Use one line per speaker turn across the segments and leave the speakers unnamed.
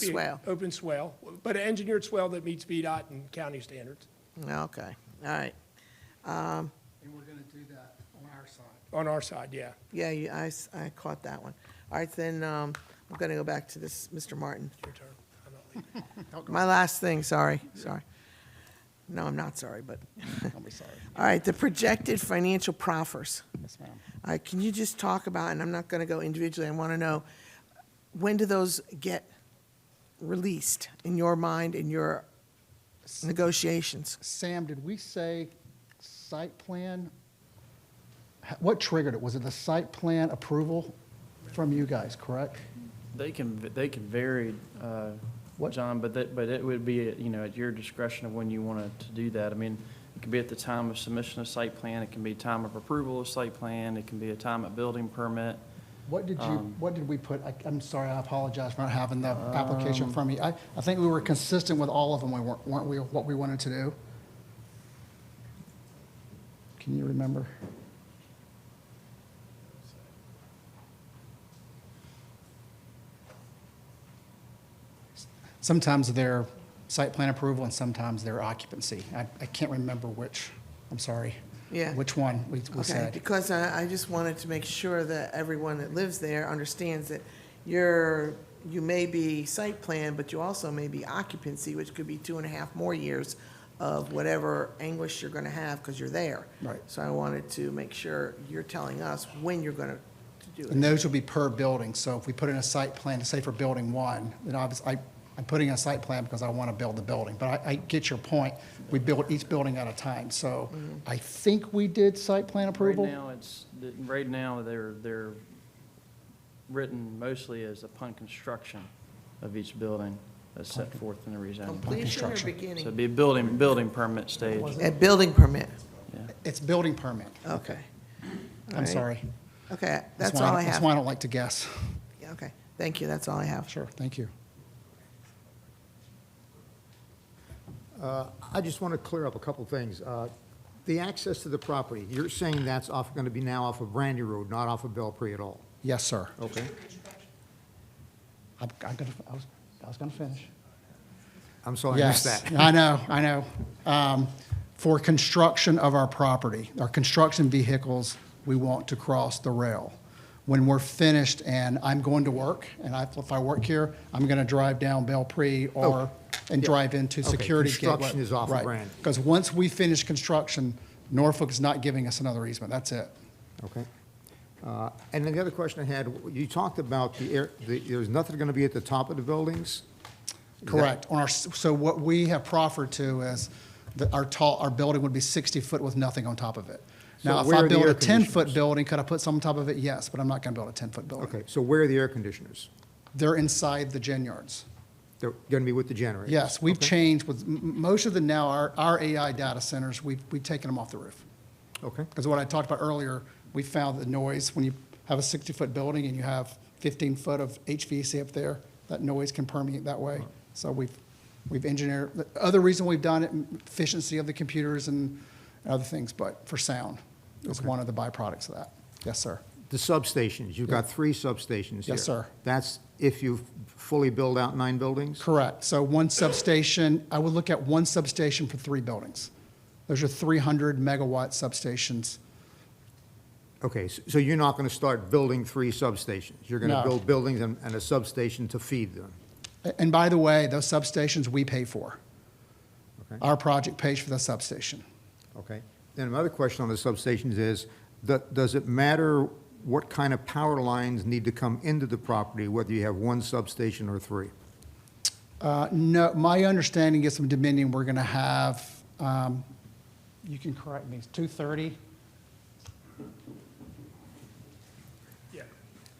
be an
Swell.
Open swell, but an engineered swell that meets VDOT and county standards
Okay, all right. Um,
And we're gonna do that on our side.
on our side, yeah.
Yeah, you- I, s- I caught that one. All right, then, um, I'm gonna go back to this, Mr. Martin.
Your turn. I'm not leaving.
My last thing, sorry, sorry. No, I'm not sorry, but,
Don't be sorry.
all right, the projected financial proffers.
Yes, ma'am.
All right, can you just talk about, and I'm not gonna go individually, I wanna know, when do those get released in your mind, in your negotiations?
Sam, did we say site plan? H- What triggered it? Was it the site plan approval from you guys, correct?
They can, they can vary, uh,
What-
John, but that, but it would be, you know, at your discretion of when you want to do that. I mean, it could be at the time of submission of site plan, it can be time of approval of site plan, it can be a time of building permit.
What did
Um,
you, what did we put, I- I'm sorry, I apologize for not having the
Uh, um,
application from you. I, I think we were consistent with all of them, We weren't weren't we, what we wanted to do? Can you remember? Sometimes they're site plan approval and sometimes they're occupancy. I, I can't remember which, I'm sorry.
Yeah.
Which one we we
Okay,
said.
because I, I just wanted to make sure that everyone that lives there understands that you're, you may be site plan, but you also may be occupancy, which could be two and a half more years of whatever anguish you're gonna have, because you're there.
Right.
So I wanted to make sure you're telling us when you're gonna to do
And
it.
those will be per building, so if we put in a site plan, say for building one, then obviously, I, I'm putting in a site plan because I want to build the building, but I, I get your point, we build each building at a time, so I think we did site plan approval?
Right now, it's, the- right now, they're, they're written mostly as upon construction of each building that's set forth in the rezoning.
Completion or
uh, construction.
So it'd
beginning?
be a building, building permit stage.
A building permit,
It's building permit,
okay.
I'm
Alright.
sorry.
Okay,
That's
that's
why
all I
That's why I
have.
don't like to guess.
Yeah, Okay, thank you, that's all I have.
Sure, thank you.
Uh, I just want to clear up a couple things. Uh, The access to the property, you're saying that's off, going to be now off of Brandy Road, not off of Belpre at all?
Yes, sir.
Okay.
I'm, I'm gonna, I was, I was gonna finish.
I'm sorry, I missed
Yes,
that.
I know, I know. Um, For construction of our property, our construction vehicles, we want to cross the rail. When we're finished and I'm going to work, and I- if I work here, I'm going to drive down Bell Pre or, and drive into
Oh, Okay,
Security Gateway.
construction is off of Brand.
Because once we finish construction, Norfolk is not giving us another easement, that's it.
Okay. Uh, And then the other question I had, you talked about the air, the- there's nothing going to be at the top of the buildings?
Correct. On our, s- so what we have proffered to is that our tall, our building would be 60 foot with nothing on top of it.
So
Now, if
where are
I
the
build
air
a 10-foot
conditioners?
building, could I put some on top of it? Yes, but I'm not going to build a 10-foot building.
Okay, so where are the air conditioners?
They're inside the gen yards.
They're going to be with the generator?
Yes, we've changed with, m- m- most of the now, our, our AI data centers, we've, we've taken them off the roof.
Okay,
Because what I talked about earlier, we found the noise, when you have a 60-foot building and you have 15-foot of HVAC up there, that noise can permeate that way. So we've, we've engineered, the other reason we've done it, efficiency of the computers and other things, but for sound is one of the byproducts of that. Yes, sir.
the substations, you've got three substations here.
Yes, sir.
That's if you fully build out nine buildings?
Correct. So one substation, I would look at one substation for three buildings. Those are 300-megawatt substations.
Okay, s- so you're not going to start building three substations? You're going to
No.
build buildings and and a substation to feed them?
A- And by the way, those substations we pay for.
Okay.
Our project pays for the substation.
Okay. Then my other question on the substations is, do- does it matter what kind of power lines need to come into the property, whether you have one substation or three?
Uh, No, my understanding is from Dominion, we're going to have, um, you can correct me, it's 230?
Yeah.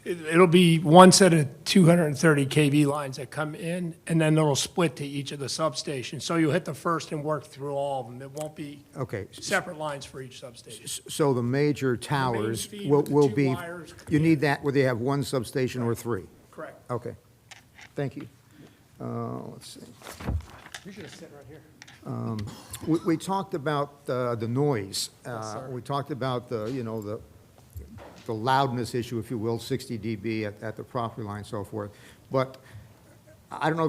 It- It'll be one set of 230 KV lines that come in, and then it'll split to each of the substations. So you'll hit the first and work through all of them. It won't be
Okay.
separate lines for each substation.
S- So the major towers
feed
will
with the
will
two
be,
wires
you
come
need that whether you have one substation or three?
Correct.
Okay. Thank you. Uh, Let's see.
You should have sit right here.
We, we talked about uh, the noise. Uh, We talked about the, you know, the, the loudness issue, if you will, 60 dB at, at the property line and so forth. But I don't know